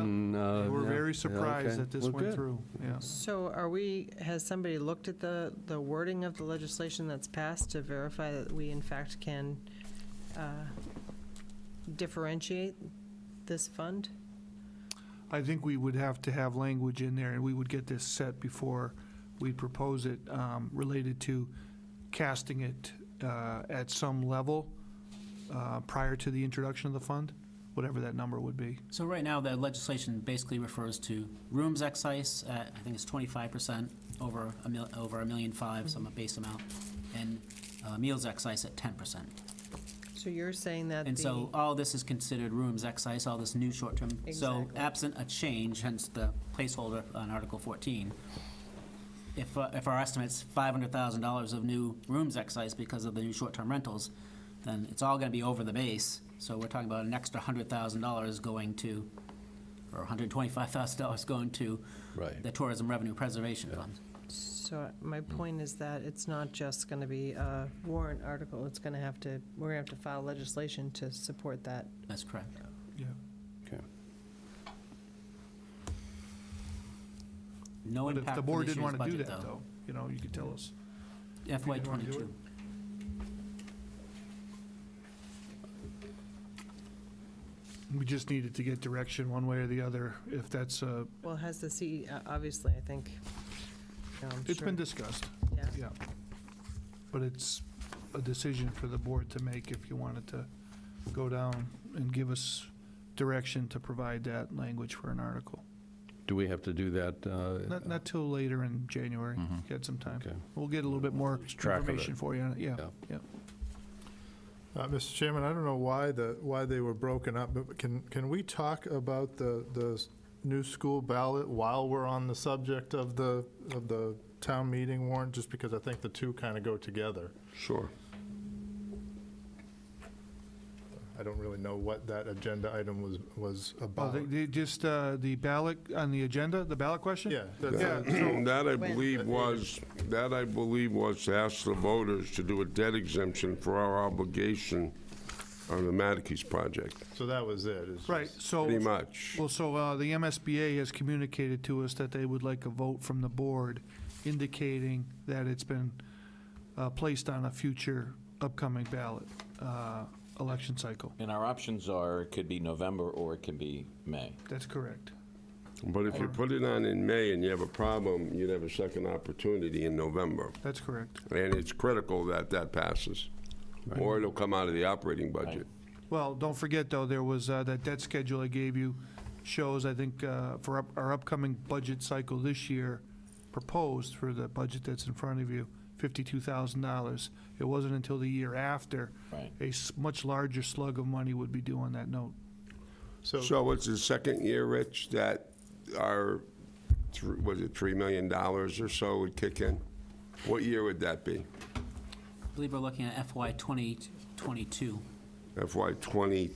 and, uh, They were yeah, yeah, very surprised okay. that this Well, went good. through, yeah. So are we, has somebody looked at the, the wording of the legislation that's passed to verify that we in fact can uh, differentiate this fund? I think we would have to have language in there, and we would get this set before we propose it, um, related to casting it uh, at some level uh, prior to the introduction of the fund, whatever that number would be. So right now, the legislation basically refers to rooms excise, at, I think it's twenty-five percent over a mil, over a million five, some base amount, and uh, meals excise at ten percent. So you're saying that the. And so all this is considered rooms excise, all this new short-term. So Exactly. absent a change, hence the placeholder on Article fourteen, if, uh, if our estimate's five hundred thousand dollars of new rooms excise because of the new short-term rentals, then it's all gonna be over the base. So we're talking about an extra hundred thousand dollars going to, or hundred twenty-five thousand dollars going to Right. the Tourism Revenue Preservation Fund. So my point is that it's not just going to be a warrant article, it's going to have to, we're going to have to file legislation to support that. That's correct. Yeah. Okay. No But if impact the to board this didn't year's want to do budget, that, though, you know, you could tell us. FY didn't wanna do twenty-two. We just needed to get direction one way or the other, if that's, uh, Well, has the C, uh, obviously, I think. you know, I'm it's sure- been discussed, yeah. yeah. But it's a decision for the board to make if you wanted to go down and give us direction to provide that language for an article. Do we have to do that? uh, Mm-hmm. Not, not till later in January, get some time. Okay. We'll get a little bit more track of it. information for you, on it. yeah, Yeah. yeah. Uh, Mr. Chairman, I don't know why the, why they were broken up, but can, can we talk about the, the s- new school ballot while we're on the subject of the, of the town meeting warrant? Just because I think the two kind of go together. Sure. I don't really know what that agenda item was, was Oh, about. they, they just, uh, the ballot, on the agenda, the ballot question? Yeah. that's Yeah. it. That I When? believe was, that I believe was to ask the voters to do a debt exemption for our obligation on the Matikes project, So that was it. it's Right, just- so. pretty much. Well, so uh, the MSBA has communicated to us that they would like a vote from the board indicating that it's been uh, placed on a future upcoming ballot uh, election cycle. And our options are, it could be November or it can be May. That's correct. But if you put it on in May and you have a problem, you'd have a second opportunity in November. That's correct. And it's critical that that passes, or it'll come out of the operating budget. Well, don't forget, though, there was, uh, that debt schedule I gave you shows, I think, uh, for up- our upcoming budget cycle this year, proposed for the budget that's in front of you, $52,000. It wasn't until the year after. Right. A s- much larger slug of money would be due on that note. So, So it's the second year, Rich, that our, thr- was it $3 million or so would kick in? What year would that be? I believe we're looking at FY twenty twenty-two. FY 20,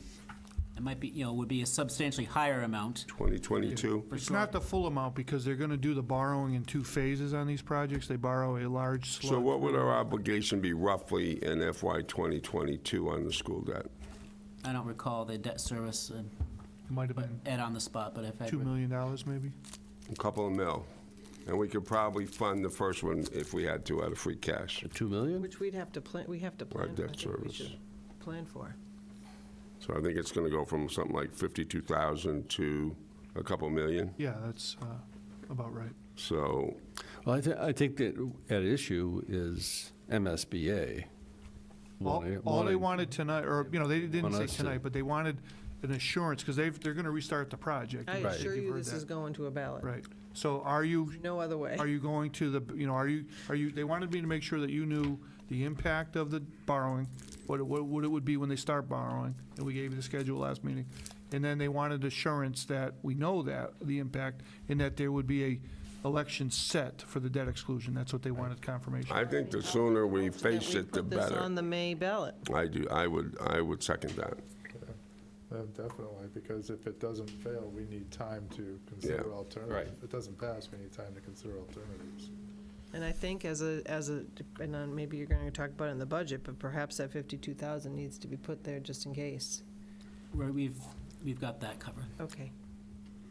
It might be, you know, would be a substantially higher amount. 2022? For It's sure. not the full amount, because they're going to do the borrowing in two phases on these projects. They borrow a large slug. So what would our obligation be roughly in FY 2022 on the school debt? I don't recall the debt service, uh, It Might have been Ed on the spot, but if I. $2 Mm-hmm. million, maybe? A couple of mil. And we could probably fund the first one if we had to out of free cash. 2 million? Which we'd have to plan, we have to plan. for. I debt think we service. should Plan for. So I think it's going to go from something like 52,000 to a couple million. Yeah, that's uh, about right. So, Well, I, thi- I think that at issue is MSBA. All, wanting- all they wanting- wanted tonight, or, you know, they didn't Want say us to- tonight, but they wanted an assurance, because they've, they're going to restart the project. I You've assure you, heard this that. is going to a ballot. Right. So are you, No other way. are you going to the, you know, are you, are you, they wanted me to make sure that you knew the impact of the borrowing, what, it- what what it would be when they start borrowing, and we gave you the schedule last meeting. And then they wanted assurance that we know that, the impact, and that there would be a election set for the debt exclusion. That's what they wanted confirmation. I think the sooner we face We it, the put this on better. the May ballot. I do, I would, I would second that. uh, definitely, because if it doesn't fail, we need time to consider Yeah, alternatives. If it doesn't pass, we need time to consider alternatives. And I think as a, as a, and then maybe you're going to talk about it in the budget, but perhaps that 52,000 needs to be put there just in case. Where we've, we've got that covered. Okay.